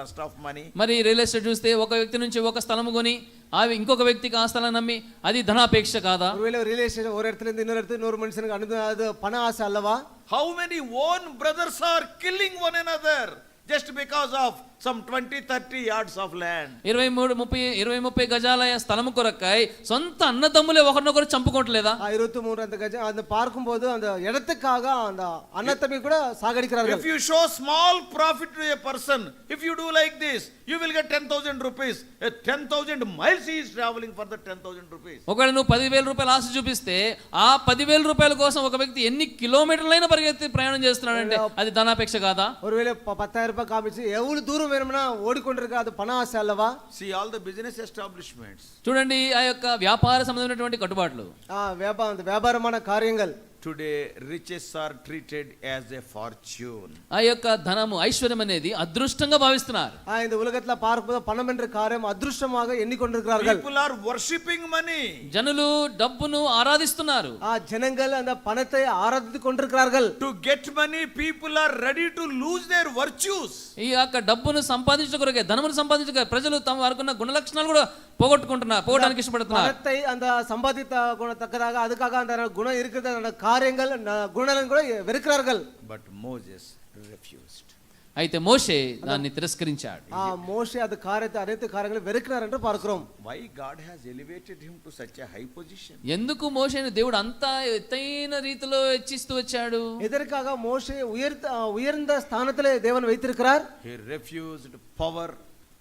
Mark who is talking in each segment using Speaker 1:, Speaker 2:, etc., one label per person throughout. Speaker 1: lust of money.
Speaker 2: మరి real estate చూస్తే ఒక వ్యక్తి నుంచి ఒక స్థలం కొని ఆ ఇంకొక వ్యక్తికి ఆ స్థలం నమ్మి అది ధనాపేక్ష కాదా
Speaker 3: ஒருவேளை ஒரு ரிலேஷன் ஒரு இடத்துல இருந்து இன்னொரு இடத்துக்கு இன்னொரு மனுஷனுக்கு அனுப்ப அது பண ஆசை அல்லவா
Speaker 1: How many own brothers are killing one another just because of some 20, 30 yards of land?
Speaker 2: ఇరవై మూడు ముప్పై ఇరవై ముప్పై గజాల స్థలం కొరకై సొంత అన్నదమ్ములే ఒకరినొకరు చంపుకోవట్లేదా
Speaker 3: இருபத்தி மூணு அந்த கஜம் அந்த பார்க்கும்போது அந்த இடத்துக்காக அந்த அன்னத்தம்பி கூட சாகடிக்கிறார்கள்
Speaker 1: If you show small profit to a person, if you do like this, you will get 10,000 rupees. A 10,000 miles he is traveling for the 10,000 rupees.
Speaker 2: ఒకవేళ నువ్వు పదివేల రూపాయల ఆశ చూపిస్తే ఆ పదివేల రూపాయల కోసం ఒక వ్యక్తి ఎన్ని కిలోమీటర్లైనా పరిగెత్తి ప్రయాణం చేస్తున్నాడంటే అది ధనాపేక్ష కాదా
Speaker 3: ஒருவேளை ப- பத்தாயிரம் ரூபாய் காமிச்சு எவ்வளவு தூரம் வேணும்னா ஓடிக்கொண்டிருக்க அது பண ஆசை அல்லவா
Speaker 1: See, all the business establishments
Speaker 2: చూడండి ఆ యొక్క వ్యాపార సంబంధమైనటువంటి కట్టుబాట్లు
Speaker 3: ஆ, வியாபா அந்த வியாபாரமான காரியங்கள்
Speaker 1: today, riches are treated as a fortune.
Speaker 2: ఆ యొక్క ధనము ఐశ్వర్యం అనేది అదృష్టంగా భావిస్తున్నారు
Speaker 3: ஆ, இந்த உலகத்துல பார்க்கும்போது பணம் என்ற காரியம் அதிருஷ்டமாக எண்ணிக்கொண்டிருக்கிறார்கள்
Speaker 1: People are worshipping money
Speaker 2: జనులు డబ్బును ఆరాధిస్తున్నారు
Speaker 3: ஆ, ஜனங்கள் அந்த பணத்தை ஆராதித்து கொண்டிருக்கிறார்கள்
Speaker 1: to get money. People are ready to lose their virtues.
Speaker 2: ఈ యొక్క డబ్బును సంపాదించడం కొరకే ధనమును సంపాదించక ప్రజలు తమ వారికి ఉన్న గుణ లక్షణాలు కూడా పోగొట్టుకుంటున్నారు పోగొట్టడానికి ఇష్టపడుతున్నారు
Speaker 3: பணத்தை அந்த சம்பாதித்த குணத்தக்கதாக அதுக்காக அந்த குணம் இருக்கிற அந்த காரியங்கள் ந- குணநலன் கூட வெறுக்கிறார்கள்
Speaker 1: But Moses refused.
Speaker 2: అయితే మోషే దాన్ని తిరస్కరించాడు
Speaker 3: ஆ, மோசே அந்த காரியத்தை அனைத்து காரியங்களும் வெறுக்கிறார் என்று பார்க்கிறோம்
Speaker 1: Why God has elevated him to such a high position?
Speaker 2: ఎందుకు మోషేని దేవుడు అంత ఎత్తైన రీతిలో హెచ్చిస్తూ వచ్చాడు
Speaker 3: எதற்காக மோசே உயர்த்த ஆ, உயர்ந்த స్థానத்திலே தேவன் வைத்திருக்கிறார்
Speaker 1: He refused power,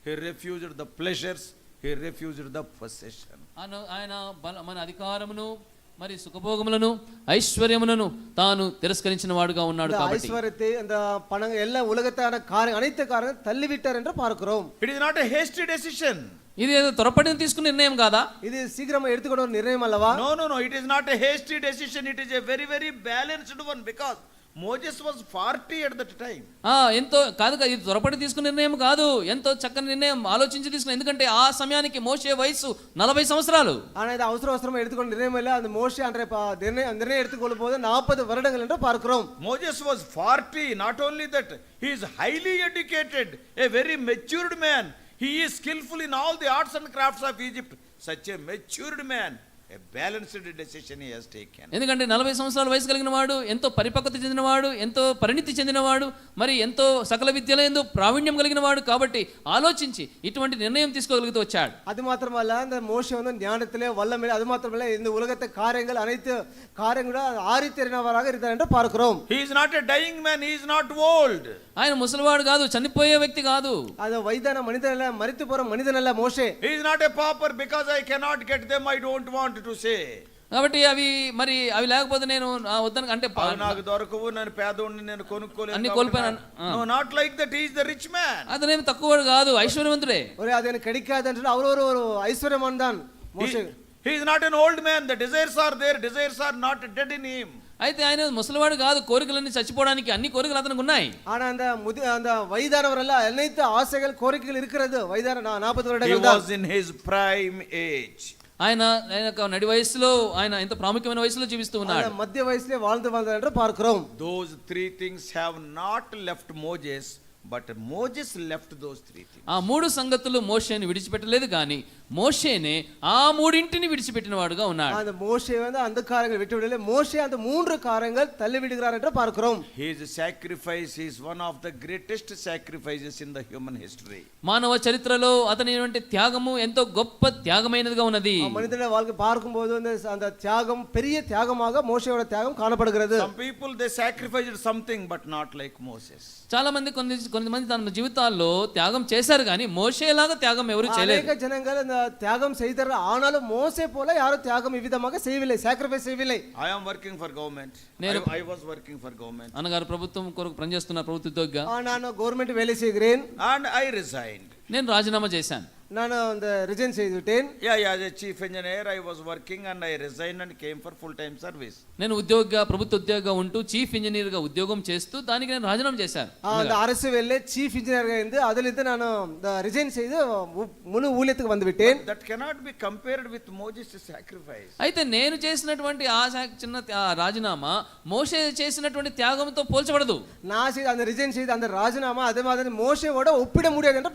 Speaker 1: he refused the pleasures, he refused the possession.
Speaker 2: అను- ఆయన బల- మన అధికారమును మరి సుఖభోగములను ఐశ్వర్యములను తాను తిరస్కరించిన వాడుగా ఉన్నాడు
Speaker 3: அந்த
Speaker 2: కాబట్టి
Speaker 3: ஐஸ்வரத்தை அந்த பணம் எல்லா உலகத்தான காரியம் அனைத்து காரியங்களும் தள்ளிவிட்டார் என்று பார்க்கிறோம்
Speaker 1: It is not a hasty decision.
Speaker 2: ఇది ఏదో త్వరపడిన తీసుకున్న నిర్ణయం కాదా
Speaker 3: இது சீக்கிரமா எடுத்துக்கொண்ட ஒரு நிர்ணயம் அல்லவா
Speaker 1: No, no, no, it is not a hasty decision, it is a very, very balanced one because Moses was 40 at that time.
Speaker 2: ఆ, ఎంతో కాదు కాదు, ఇది త్వరపడి తీసుకున్న నిర్ణయం కాదు ఎంతో చక్కని నిర్ణయం ఆలోచించి తీసుకున్న ఎందుకంటే ఆ సమయానికి మోసే వయసు నలభై సంవత్సరాలు
Speaker 3: ஆனா இது அவசர அவசரமா எடுத்துக்கொண்ட நிர்ணயம் இல்ல அந்த மோசே அன்றைய ப- நிர்ணயம் நிர்ணயம் எடுத்துக்கொள்ளும் போது நாற்பது வருடங்கள் என்று பார்க்கிறோம்
Speaker 1: Moses was 40, not only that, he is highly educated, a very matured man. He is skillful in all the arts and crafts of Egypt. Such a matured man, a balanced decision he has taken.
Speaker 2: ఎందుకంటే నలభై సంవత్సరాల వయసు కలిగిన వాడు ఎంతో పరిపక్వత చెందినవాడు ఎంతో పరిణితి చెందినవాడు మరి ఎంతో సకల విద్యలో ఎంతో ప్రావీణ్యం కలిగిన వాడు కాబట్టి ఆలోచించి ఇటువంటి నిర్ణయం తీసుకోగలుగుతూ వచ్చాడు
Speaker 3: அது மாத்திரமல்ல அந்த மோசே வந்து ஞானத்திலே வல்லமையிலே அது மாத்திரமல்ல இந்த உலகத்தை காரியங்கள் அனைத்து காரியங்களும் ஆரித்தறினவராக இருந்தார் என்று பார்க்கிறோம்
Speaker 1: He is not a dying man, he is not old.
Speaker 2: ఆయన ముసలివాడు కాదు చనిపోయే వ్యక్తి కాదు
Speaker 3: அது வயதான மனிதன் அல்ல மறித்து போற மனிதன் அல்ல மோசே
Speaker 1: He is not a pauper because I cannot get them, I don't want to say.
Speaker 2: కాబట్టి అవి మరి అవి లేకపోతే నేను ఆ వద్దను అంటే ప-
Speaker 1: అవి "Ah, నాకు దొరకవు నేను పేదోడిని నేను కొనుక్కోలేదు
Speaker 2: అన్ని
Speaker 1: కాబట్టి
Speaker 2: కోల్పోయాను.
Speaker 1: నా- No, not like that, he is the rich man.
Speaker 2: అతనేం తక్కువవాడు కాదు ఐశ్వర్యవంతుడే
Speaker 3: ஒரு அது எனக்கு கிடைக்காது என்று அவர் ஒரு ஒரு ஐஸ்வர்யமான் தான் மோசே
Speaker 1: He is not an old man, the desires are there, desires are not dead in him.
Speaker 2: అయితే ఆయన ముసలివాడు కాదు కోరికలన్నీ చచ్చిపోవడానికి అన్ని కోరికలు అతనికి ఉన్నాయి
Speaker 3: ஆனா அந்த முதி அந்த வயதானவர் அல்ல அனைத்து ஆசைகள் கோரிக்கைகள் இருக்கிறது வயதான நா- நாற்பது
Speaker 1: He
Speaker 3: வருடங்கள் தான்
Speaker 1: was in his prime age.
Speaker 2: ఆయన ఆయన యొక్క నడి వయసులో ఆయన ఎంత ప్రాముఖ్యమైన వయసులో జీవిస్తూ
Speaker 3: அந்த
Speaker 2: ఉన్నాడు
Speaker 3: மத்திய வயசுலே வாழ்ந்து வாழ்ந்தார் என்று பார்க்கிறோம்
Speaker 1: Those three things have not left Moses, but Moses left those three things.
Speaker 2: ఆ మూడు సంగతులు మోషేని విడిచిపెట్టలేదు కానీ మోషేనే ఆ మూడింటిని విడిచిపెట్టిన వాడుగా ఉన్నాడు
Speaker 3: அந்த மோசே வந்து அந்த காரியங்கள் விட்டு விடல மோசே அந்த மூன்று காரியங்கள் தள்ளி விடுகிறார் என்று பார்க்கிறோம்
Speaker 1: His sacrifice is one of the greatest sacrifices in the human history.
Speaker 2: మానవ చరిత్రలో అతని వంటి త్యాగము ఎంతో గొప్ప త్యాగమైనదిగా ఉన్నది
Speaker 3: மனிதன வாழ்க்கை பார்க்கும்போது வந்து அந்த தியாகம் பெரிய தியாகமாக மோசையோட தியாగம் காணப்படுகிறது
Speaker 1: Some people they sacrificed something, but not like Moses.
Speaker 2: చాలా మంది కొన్ని కొంతమంది తమ జీవితాల్లో త్యాగం చేశారు కానీ మోషేలాగా త్యాగం ఎవరు చేయలేదు
Speaker 3: அநேக ஜனங்கள் அந்த தியாகம் செய்தார்கள் ஆனாலும் மோசே போல யாரும் தியாగம் இவ்விதமாக செய்யவில்லை sacrifice செய்யவில்லை
Speaker 1: I am working for government. I, I was working for government.
Speaker 2: అన్నగారు ప్రభుత్వం కొరకు పనిచేస్తున్న ప్రభుత్వ ఉద్యోగిగా
Speaker 3: ஆ, நான் கவர்மெண்ட் வேலை செய்கிறேன்
Speaker 1: And I resigned.
Speaker 2: నేను రాజీనామా చేశాను
Speaker 3: நான் அந்த ரிஜைன் செய்து விட்டேன்
Speaker 1: Yeah, yeah, as a chief engineer, I was working and I resigned and came for full-time service.
Speaker 2: నేను ఉద్యోగిగా ప్రభుత్వ ఉద్యోగిగా ఉంటూ చీఫ్ ఇంజనీర్గా ఉద్యోగం చేస్తూ దానికి నేను రాజీనామా చేశాను
Speaker 3: ஆ, அந்த அரசு வேலையில சீஃப் இன்ஜினியராக இருந்து அதிலிருந்து நான் இந்த ரிஜைன் செய்து உ- முழு ஊழியத்துக்கு வந்து விட்டேன்
Speaker 1: That cannot be compared with Moses' sacrifice.
Speaker 2: అయితే నేను చేసినటువంటి ఆ సా- చిన్న త్యా- ఆ రాజీనామా మోషే చేసినటువంటి త్యాగంతో పోల్చబడదు
Speaker 3: நான் செய்த அந்த ரிஜைன் செய்து அந்த ராஜினாமா அதே மாதிரி மோசையோட ஒப்பிட முடியாது என்று